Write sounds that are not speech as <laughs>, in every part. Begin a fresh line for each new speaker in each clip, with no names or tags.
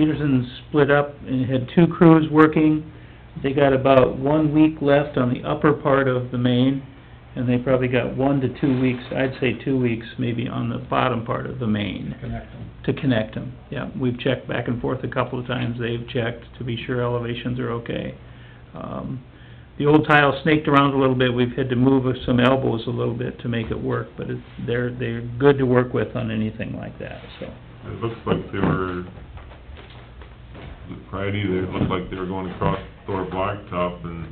Peterson split up and had two crews working. They got about one week left on the upper part of the main, and they probably got one to two weeks, I'd say two weeks maybe, on the bottom part of the main
connect them.
to connect them. Yeah, we've checked back and forth a couple of times, they've checked to be sure elevations are okay. Um, The old tile snaked around a little bit, we've had to move some elbows a little bit to make it work, but it's, they're, they're good to work with on anything like that, so.
It looks like they were, was it Friday, they looked like they were going across Thor Blacktop and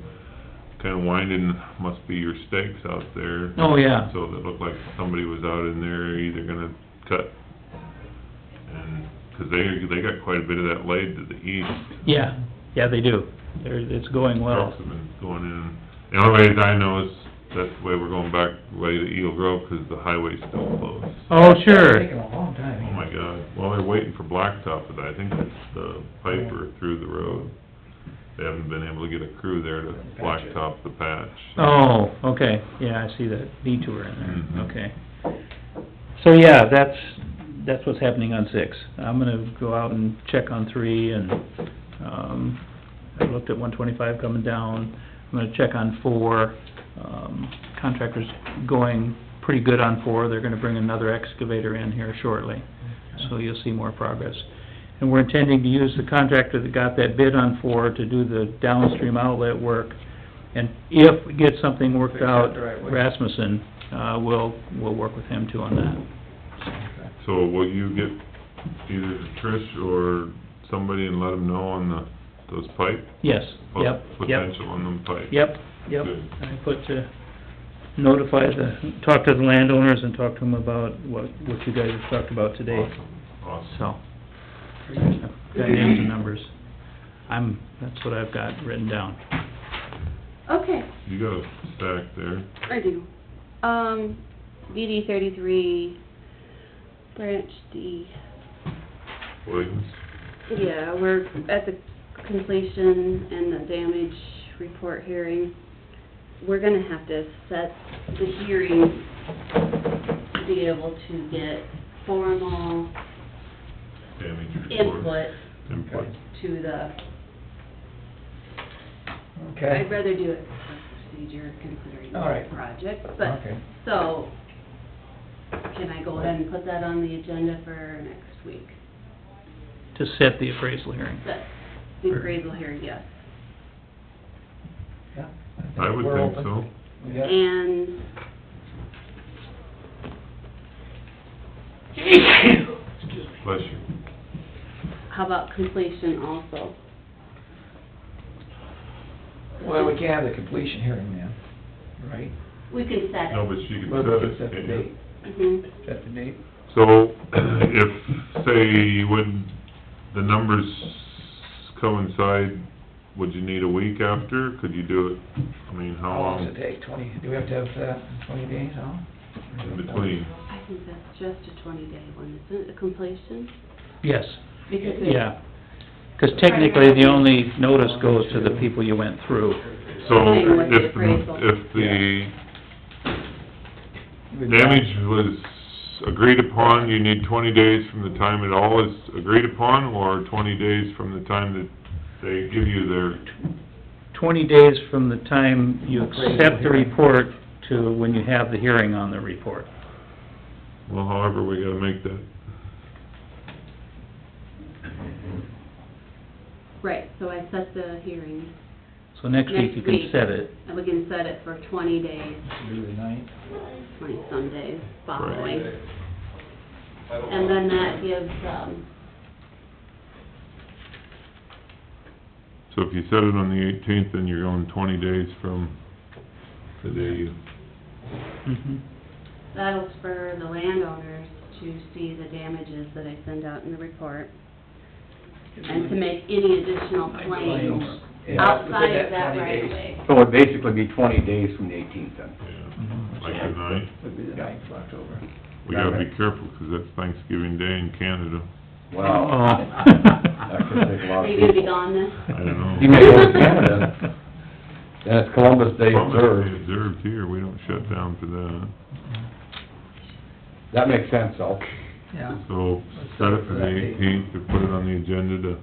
kinda winding, must be your stakes out there.
Oh, yeah.
So it looked like somebody was out in there either gonna cut, and, 'cause they, they got quite a bit of that laid to the east.
Yeah, yeah, they do. They're, it's going well.
Trucks have been going in. The only way that I know is that's the way we're going back, way to Eagle Grove, 'cause the highway's still closed.
Oh,
It's
sure.
taken a long time.
Oh, my God. Well, they're waiting for blacktop, but I think it's the Piper through the road. They haven't been able to get a crew there to
Patch it.
blacktop the patch.
Oh, okay, yeah, I see that detour in there,
Mhm.
okay. So, yeah, that's, that's what's happening on six. I'm gonna go out and check on three and, um, I looked at one twenty-five coming down. I'm gonna check on four. Um, contractor's going pretty good on four. They're gonna bring another excavator in here shortly.
Oh,
so you'll see more progress. And we're intending to use the contractor that got that bid on for to do the downstream outlet work. And if we get something worked
Fix that
out,
driveway.
Rasmussen, uh, will, will work with him too on that.
So will you get either Trish or somebody and let them know on the, those pipe?
Yes, yep, yep,
Potential on them pipe?
yep, yep.
Good.
I put to notify the, talk to the landowners and talk to them about what, what you guys have talked about today,
Awesome, awesome.
so. I've Got names and numbers. I'm, that's what I've got written down.
Okay,
You got a stack there.
I do. Um, DD thirty-three, branch D.
Williams?
Yeah, we're at the completion and the damage report hearing. We're gonna have to set the hearing to be able to get formal
Damage report.
input
Input.
to the,
Okay.
I'd rather do it by procedure considering
All right.
the project, but,
Okay.
so, can I go ahead and put that on the agenda for next week?
To set the appraisal hearing.
That's the appraisal hearing, yes.
Yeah.
I would
We're
think
open.
so.
We got-
And <coughs>
Bless you.
how about completion also?
Well, we can't have the completion hearing now, right?
We can set
No,
it.
but she
Well, we
could
can
set
set
it,
the
can't you?
date,
Mhm.
set the date.
So, <clears throat> if, say, when the numbers coincide, would you need a week after? Could you do it, I mean, how
How long does it
long
take, twenty, do we have to have that twenty days on?
in between?
I think that's just a twenty-day one, isn't it, a completion?
Yes,
Because it's-
yeah. Because technically, the only notice goes to the people you went through.
So,
Same with the
if, the-
appraisal.
if the
We've got-
damage was agreed upon, you need twenty days from the time it all is agreed upon, or twenty days from the time that they give you their,
Twenty days from the time you accept the report to when you have the hearing on the report.
well, however, we gotta make that.
Right, so I set the hearing,
So next week, you can
Next week.
set it.
and we can set it for twenty days,
Do the ninth.
twenty-some days following. And then that gives, um,
So if you set it on the eighteenth, then you're going twenty days from the day you
Mm-hmm.
Mhm.
That'll spur the landowners to see the damages that I send out in the report, and to make any additional claims
Yeah,
outside
within
of that
20
right of
days.
way.
So it'd basically be twenty days from the eighteenth then?
Yeah, like tonight,
Would be Mm-hmm. the ninth of October.
we gotta be careful, 'cause that's Thanksgiving Day in Canada.
Oh.
<laughs> Wow. That could take
<laughs>
a
Are
lot of
you gonna be
people.
gone then?
I don't know.
You <laughs> may go to Canada, and it's Columbus Day
Columbus Day
observed.
observed here, we don't shut down for that.
That makes sense, though.
Yeah.
So set it for the eighteenth, to put it on the agenda to